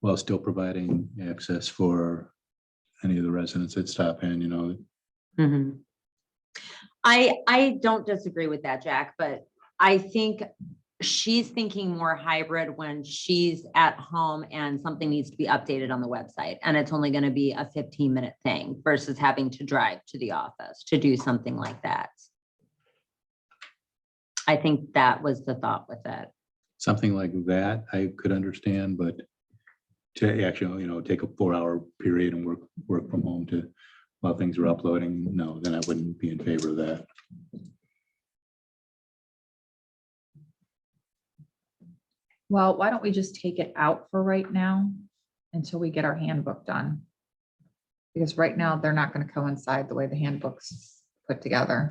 while still providing access for any of the residents that stop in, you know, Mhm. I, I don't disagree with that, Jack, but I think she's thinking more hybrid when she's at home and something needs to be updated on the website. And it's only going to be a fifteen minute thing versus having to drive to the office to do something like that. I think that was the thought with it. something like that, I could understand, but to actually, you know, take a four-hour period and work, work from home to, while things are uploading, no, then I wouldn't be in favor of that. Well, why don't we just take it out for right now until we get our handbook done? Because right now, they're not gonna coincide the way the handbook's put together.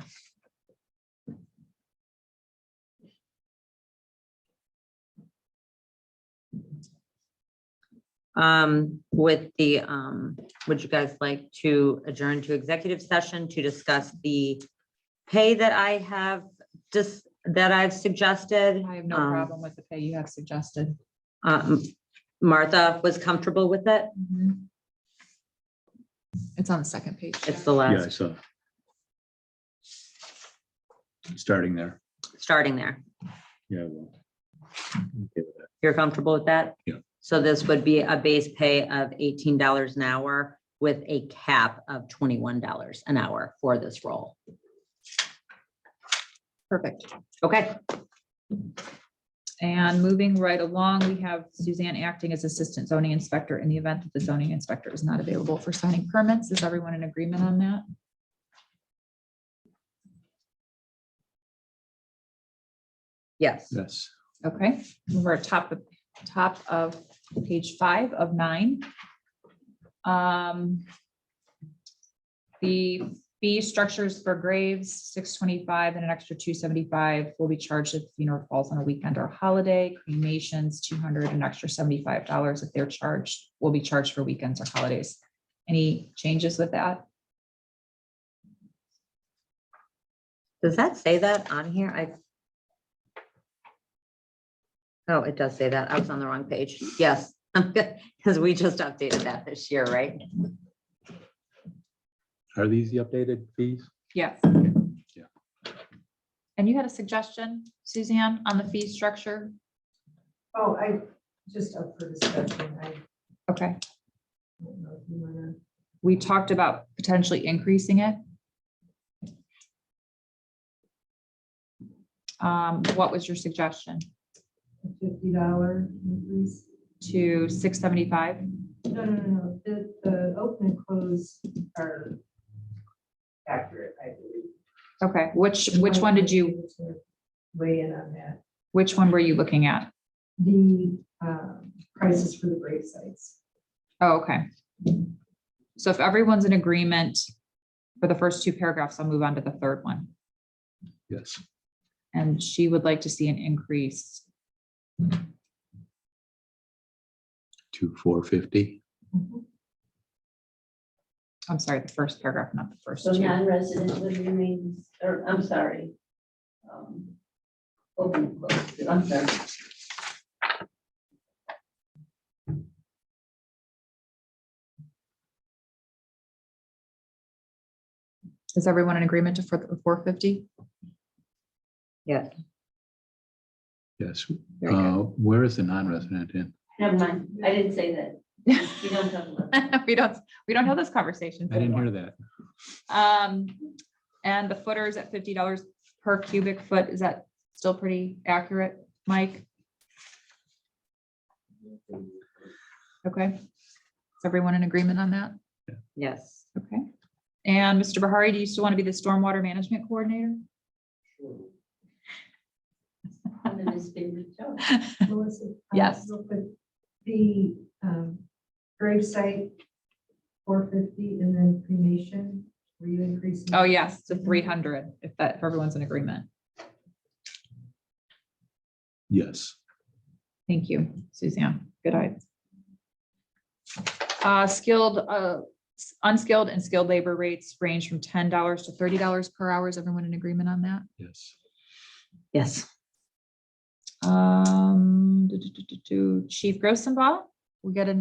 um, with the, um, would you guys like to adjourn to executive session to discuss the pay that I have just, that I've suggested? I have no Um, problem with the pay you have suggested. um, Martha was comfortable with it. Mm-hmm. It's on the second page. It's the Yeah, last, so. Starting there, starting there. yeah. well, okay with that. You're comfortable with that? Yeah. So this would be a base pay of eighteen dollars an hour with a cap of twenty-one dollars an hour for this role. Perfect. Okay, And moving right along, we have Suzanne acting as Assistant Zoning Inspector in the event that the zoning inspector is not available for signing permits. Is everyone in agreement on that? yes. Yes, Okay, we're at top of, top of page five of nine. Um. The fee structures for graves, six twenty-five and an extra two seventy-five will be charged if funeral falls on a weekend or holiday. Cremations, two hundred, an extra seventy-five dollars if they're charged, will be charged for weekends or holidays. Any changes with that? Does that say that on here? I. Oh, it does say that. I was on the wrong page. Yes, I'm good, because we just updated that this year, right? are these the updated fees? Yes. Yeah. And you had a suggestion, Suzanne, on the fee structure? Oh, I, just up for discussion, I Okay. don't know if you wanna. we talked about potentially increasing it. Um, what was your suggestion? a Fifty dollar increase? To six seventy-five? No, no, no, no, the, the open and close are accurate, I believe. Okay, which, which one did you, Weigh in on that, which one were you looking at? the, um, prices for the grave sites. Oh, okay. So if everyone's in agreement for the first two paragraphs, I'll move on to the third one. Yes, And she would like to see an increase two, four fifty. I'm sorry, the first paragraph, not the first So two. non-resident would remain, or I'm sorry. um, Open, closed, I'm sorry. Is everyone in agreement to for the four fifty? Yes. Yes, Very uh, good. where is the non-resident in? Never mind, I didn't say that. You don't talk about that. We don't, we don't have those conversations. I didn't anymore. hear that. Um, and the footer is at fifty dollars per cubic foot. Is that still pretty accurate, Mike? Okay. Is everyone in agreement on that? Yes. Okay. And Mr. Bahari, do you still want to be the stormwater management coordinator? I'm in his favorite job. Melissa? um, Yes. real quick, The, um, grave site, four fifty, and then cremation, were you increasing? Oh, yes, to three hundred, if that, if everyone's in agreement. Yes, Thank you, Suzanne. Good eye. Uh, skilled, uh, s- unskilled and skilled labor rates range from ten dollars to thirty dollars per hour. Is everyone in agreement on that? yes. Yes. Um, do, do, do, do, do. Chief Grossenbaugh, we get an